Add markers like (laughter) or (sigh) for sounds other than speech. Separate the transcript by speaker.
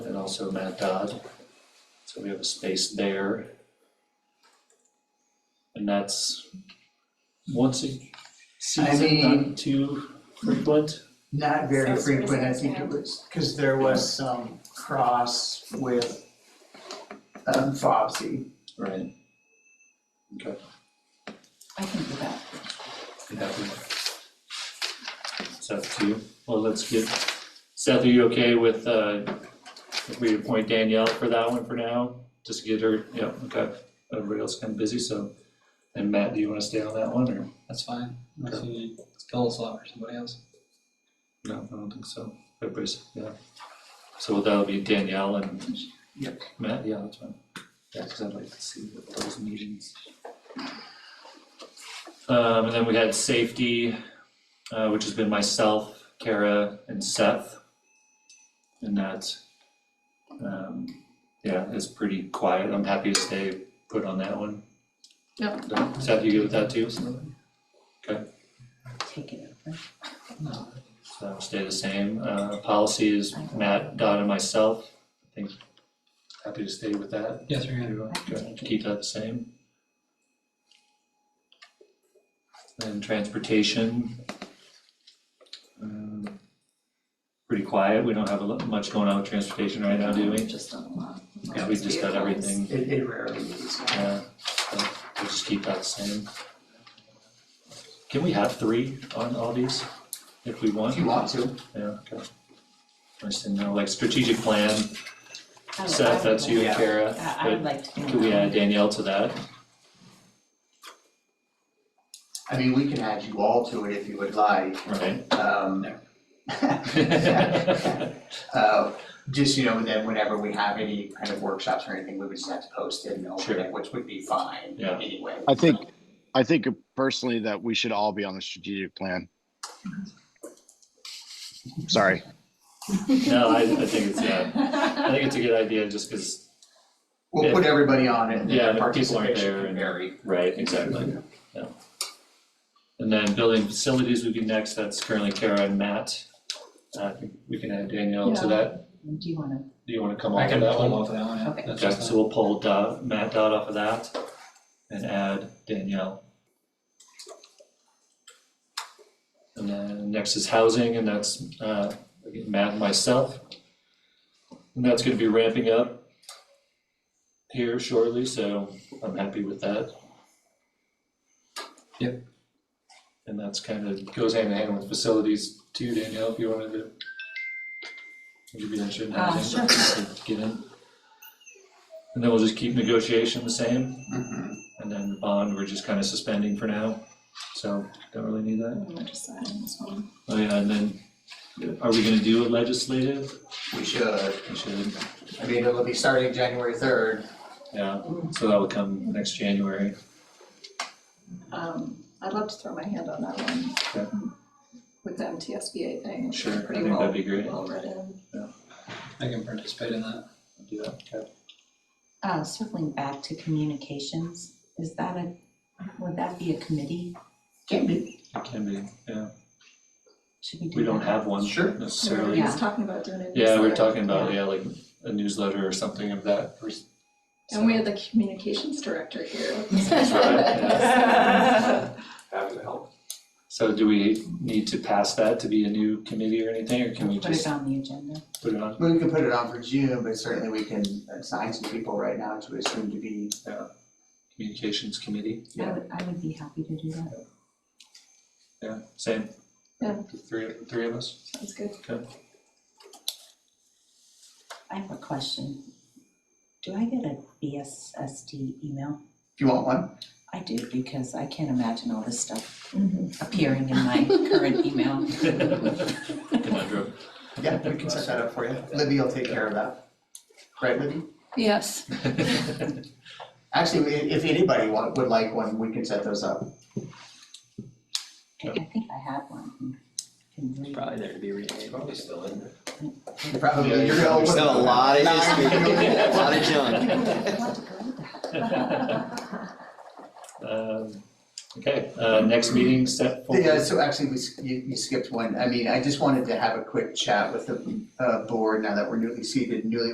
Speaker 1: also Matt Dodd. So we have a space there. And that's once a season,
Speaker 2: mean-
Speaker 1: not too frequent.
Speaker 2: Not very
Speaker 3: Social
Speaker 2: frequent, I
Speaker 3: distance,
Speaker 2: think it
Speaker 3: yeah.
Speaker 2: was, because there was some cross with um FOBSI.
Speaker 1: Right. Okay.
Speaker 4: I can do that.
Speaker 1: you have it. Seth, too. Well, let's get, Seth, are you okay with, uh, if we appoint Danielle for that one for now? Just to get her, yeah, okay. Everybody else kind of busy, so. And Matt, do you want to stay on that one or?
Speaker 5: That's fine, unless you need Stanislav or somebody else.
Speaker 1: No, I don't think so. Everybody's, yeah. So that'll be Danielle and
Speaker 2: Yep.
Speaker 1: Matt, yeah, that's fine. Yeah, because I'd like to see what those meetings. Um, and then we had safety, uh, which has been myself, Kara and Seth. And that, um, yeah, is pretty quiet. I'm happy to stay put on that one.
Speaker 4: Yep.
Speaker 1: Seth, you good with that too?
Speaker 4: Take it over.
Speaker 1: So that'll stay the same. Uh, policy is Matt, Dot, and myself. I think happy to stay with that.
Speaker 5: Yes, sir, yeah.
Speaker 1: Everyone,
Speaker 4: I can
Speaker 1: okay,
Speaker 4: take it.
Speaker 1: Keep that the same. Then transportation. Um, Pretty quiet. We don't have a lot, much going on with transportation right now, do we?
Speaker 4: Just done a lot.
Speaker 1: Yeah, we just got everything,
Speaker 2: It it rarely is.
Speaker 1: yeah. So We'll just keep that the same. Can we have three on all these if we want?
Speaker 2: If you want to,
Speaker 1: Yeah, okay. I just didn't know, like strategic plan,
Speaker 4: I would-
Speaker 1: Seth, that's you and
Speaker 2: Yeah.
Speaker 1: Kara,
Speaker 4: I I would
Speaker 1: but
Speaker 4: like to. do
Speaker 1: could we
Speaker 4: that.
Speaker 1: add Danielle to that?
Speaker 2: I mean, we can add you all to it if you would like,
Speaker 1: Right? (laughs)
Speaker 2: um. Uh, just, you know, then whenever we have any kind of workshops or anything, we would just have to post it and open
Speaker 1: Sure.
Speaker 2: it, which would be fine
Speaker 1: Yeah.
Speaker 2: anyway.
Speaker 6: I think, I think personally that we should all be on the strategic plan. Sorry,
Speaker 1: No, I, I think it's, yeah, I (laughs) think it's a good idea just because,
Speaker 2: We'll put everybody on it and
Speaker 1: Yeah,
Speaker 2: then
Speaker 1: if people aren't
Speaker 2: participation
Speaker 1: there
Speaker 2: can
Speaker 1: and-
Speaker 2: vary.
Speaker 1: right, exactly, yeah. And then building facilities would be next, that's currently Kara and Matt. Uh, I think we can add Danielle to
Speaker 4: Yeah.
Speaker 1: that,
Speaker 4: Do you wanna,
Speaker 1: do you wanna come
Speaker 5: I
Speaker 1: on to
Speaker 5: can
Speaker 1: that one?
Speaker 5: pull off of that one,
Speaker 4: Okay.
Speaker 5: yeah. That's
Speaker 1: Okay,
Speaker 5: fine.
Speaker 1: so we'll pull Dot, Matt Dot off of that and add Danielle. And then next is housing and that's uh again, Matt and myself. And that's gonna be ramping up here shortly, so I'm happy with that.
Speaker 5: Yep.
Speaker 1: And that's kind of goes hand in hand with facilities too, Danielle, if you wanted to. Would you be interested in
Speaker 4: Uh,
Speaker 1: housing? to Get in. And then we'll just keep negotiation the same,
Speaker 2: Mhm.
Speaker 1: and then the bond, we're just kind of suspending for now, so don't really need that.
Speaker 4: we'll just add in this one.
Speaker 1: Oh yeah, and then, are we gonna do a legislative?
Speaker 2: We should,
Speaker 1: We should,
Speaker 2: I mean, it'll be starting January third.
Speaker 1: yeah, so that will come next January.
Speaker 3: Um, I'd love to throw my hand on that
Speaker 1: Okay.
Speaker 3: one. With the MTSBA thing,
Speaker 1: Sure, I
Speaker 3: pretty
Speaker 1: think that'd
Speaker 3: well,
Speaker 1: be great.
Speaker 3: well read in.
Speaker 5: I can participate in that.
Speaker 1: I'll Do that, okay.
Speaker 4: Uh, circling back to communications, is that a, would that be a committee?
Speaker 2: Can be.
Speaker 1: Can be, yeah,
Speaker 4: Should we do that?
Speaker 1: we don't have one
Speaker 2: Sure.
Speaker 1: necessarily.
Speaker 3: He's talking about doing a
Speaker 1: Yeah, we were
Speaker 3: newsletter.
Speaker 1: talking about, yeah, like a newsletter or something of that.
Speaker 3: And we had the communications director here.
Speaker 1: That's right,
Speaker 4: yeah.
Speaker 7: happy to help.
Speaker 1: So do we need to pass that to be a new committee or anything, or can we
Speaker 4: Put it
Speaker 1: just
Speaker 4: on the agenda.
Speaker 1: put it on?
Speaker 2: We can put it on for June, but certainly we can assign some people right now to assume to be.
Speaker 1: Communications committee,
Speaker 4: I
Speaker 2: Yeah.
Speaker 4: would, I would be happy to do that.
Speaker 1: yeah, same.
Speaker 3: Yeah.
Speaker 1: The Three, three of
Speaker 3: (laughs)
Speaker 1: us.
Speaker 3: (laughs) Sounds good.
Speaker 4: I have a question. Do I get a BSSD email?
Speaker 2: If you want one,
Speaker 4: I do, because I can't imagine all this stuff appearing in my current email.
Speaker 1: Conundrum.
Speaker 2: yeah, we can set that up for you. Libby will take care of that. Right, Libby?
Speaker 3: Yes.
Speaker 2: Actually, i- if anybody want, would like one, we can set those up.
Speaker 4: I I think I had one. Can we-
Speaker 5: Probably there to be renamed.
Speaker 7: Probably still in there.
Speaker 2: Probably,
Speaker 1: Yeah,
Speaker 2: you're gonna
Speaker 7: There's
Speaker 2: open
Speaker 7: still a lot
Speaker 2: (laughs)
Speaker 7: of history, a lot of junk.
Speaker 4: I want to go to that.
Speaker 1: (laughs) Um, Okay, uh, next meeting set for.
Speaker 2: Yeah, so actually, we, s- you, you skipped one. I mean, I just wanted to have a quick chat with the, uh, board now that we're newly seated, newly